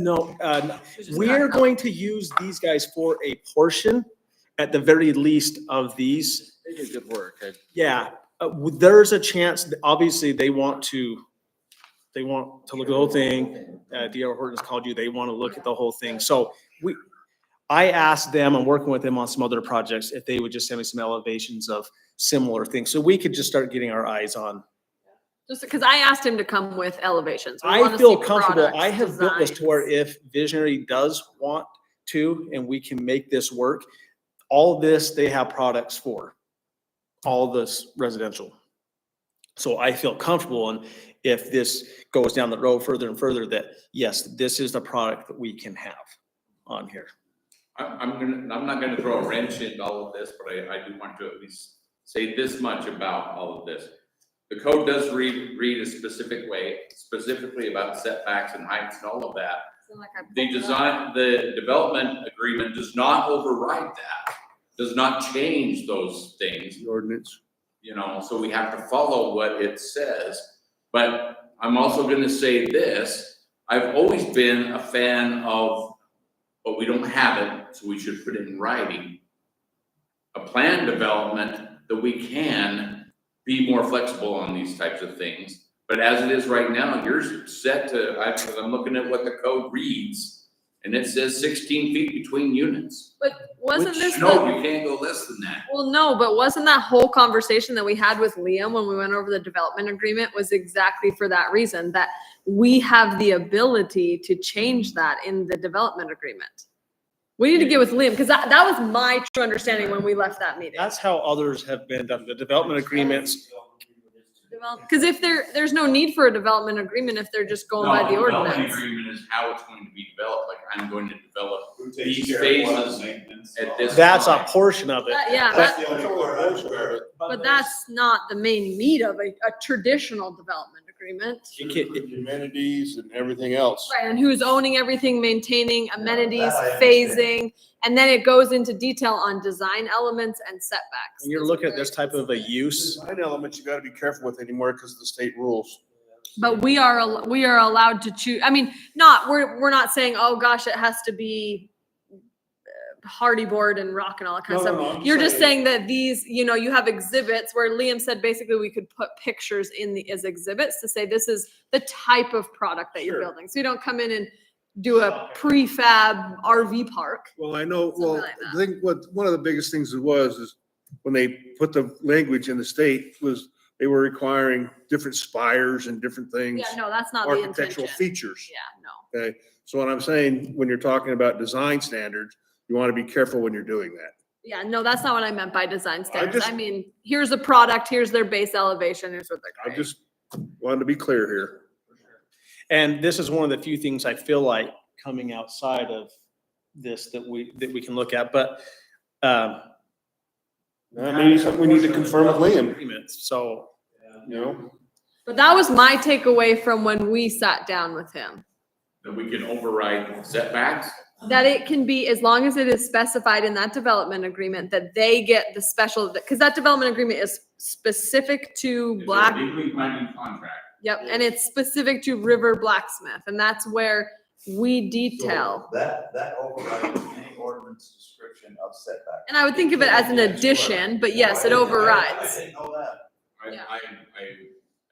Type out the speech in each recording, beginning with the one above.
No, uh, It's just we're not- going to use these guys for a portion, at the very least of these. They do good work. I- Yeah, uh, w- there's a chance, that obviously, they want to, they want to look at the whole thing. Uh, D.R. Horton's called you, they want to look at the whole thing. So we, I asked them, I'm working with them on some other projects, if they would just send me some elevations of similar things. So we could just start getting our eyes on. Just because I asked him to come with elevations. We I wanna feel see comfortable. products, I have built this to where designs. if Visionary does want to, and we can make this work, all this, they have products for, all this residential. So I feel comfortable and if this goes down the road further and further, that yes, this is the product that we can have on here. I'm, I'm gonna, I'm not gonna throw a wrench into all of this, but I, I do want to at least say this much about all of this. The code does read, read a specific way, specifically about setbacks and heights and all of that. It's like I pulled The it up. design, the development agreement does not override that, does not change those things. The ordinance. you know, so we have to follow what it says. But I'm also gonna say this, I've always been a fan of, but we don't have it, so we should put it in writing. A plan development that we can be more flexible on these types of things. But as it is right now, you're set to, I, I'm looking at what the code reads, and it says sixteen feet between units. But wasn't Which- this, No, the- you can't go less than that. well, no, but wasn't that whole conversation that we had with Liam when we went over the development agreement was exactly for that reason, that we have the ability to change that in the development agreement? We need to get with Liam, because that, that was my true understanding when we left that meeting. That's how others have been done, the development agreements. Because if there, there's no need for a development agreement if they're just going by the No, development ordinance. Agreement is how it's going to be developed, like I'm going to develop Who takes these care of what, phases maintenance, at all this- That's a portion of it. That- Yeah, That's that, the only part I wear. but that's not the main meat of a, a traditional development agreement. You can't- amenities and everything else. Right, and who's owning everything, maintaining amenities, that I phasing, and then it goes into detail on design elements and setbacks. When you're It's looking at very this type of a specific. use, Design elements you gotta be careful with anymore because of the state rules. But we are, al- we are allowed to choose, I mean, not, we're, we're not saying, oh, gosh, it has to be uh, hardy board and rock and all that kind No, of no, stuff. no, I'm You're just saying that these, you know, you have exhibits where Liam said basically we could put pictures in the, as exhibits to say this is the type of product that you're Sure. building. So you don't come in and do a prefab RV park. Well, I know, Something well, like I think what, one of the biggest things it was is when they put the language in the state was they were requiring different spires and different things, Yeah, no, that's not the intention. architectural features. Yeah, no. So what I'm saying, when you're talking about design standards, you wanna be careful when you're doing that. Yeah, no, that's not what I meant by design standards. just- I mean, here's a product, here's their base elevation, here's what they're. I just wanted to be clear here. And this is one of the few things I feel like coming outside of this that we, that we can look at, but, um. Maybe something we need to confirm with Liam, agreements, So, you know? But that was my takeaway from when we sat down with him. that we can override setbacks. That it can be, as long as it is specified in that development agreement, that they get the special, because that development agreement is specific to It's a black Legally binding contract. Yep, and it's specific to River Blacksmith, and that's where we So detail. That, that overrides any ordinance description of setback. And I would think of it as an addition, but yes, it I- I- I overrides. didn't know that. I, Yeah. I, I,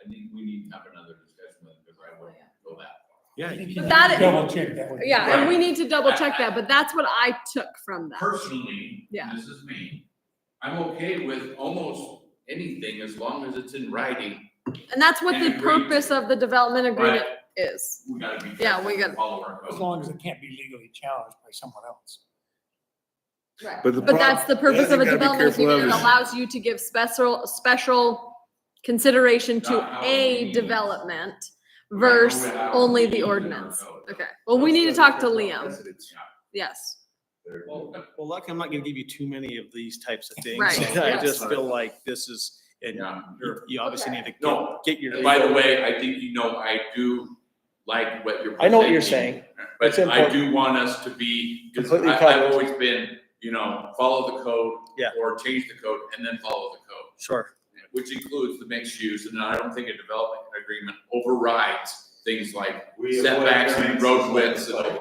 I think we need to have another discussion with, it because I wouldn't go that far. yeah, But that, Double check that one. yeah, and we need to double check that, but that's what I took from that. Personally, Yeah. and this is me, I'm okay with almost anything as long as it's in writing. And that's what the And agree. purpose of the development agreement is. We gotta be. Yeah, careful we to gotta- Follow our As code. long as it can't be legally challenged by someone else. Right. But the But prob- that's the purpose thing of a you gotta be development careful of agreement. It is- allows you to give special, special consideration Not to how we a use. development Right, versus how we only use the our ordinance. code. Okay, well, we need to talk to Liam, Residents. yes. There- well, luckily I'm not gonna give you too many of these types of things. Right, I yes. just feel like this is, and Yeah, you- you obviously need to No, get- get your. And by the way, I think you know, I do like what you're. I know what you're presenting, saying. It's But I important. do want us to be, because Completely I, covered. have always been, you know, follow the code. Yeah. Or change the code and then follow the code, Sure. which includes the mixed use, and I don't think a development agreement overrides things like We avoid setbacks and variances road like widths and the plague.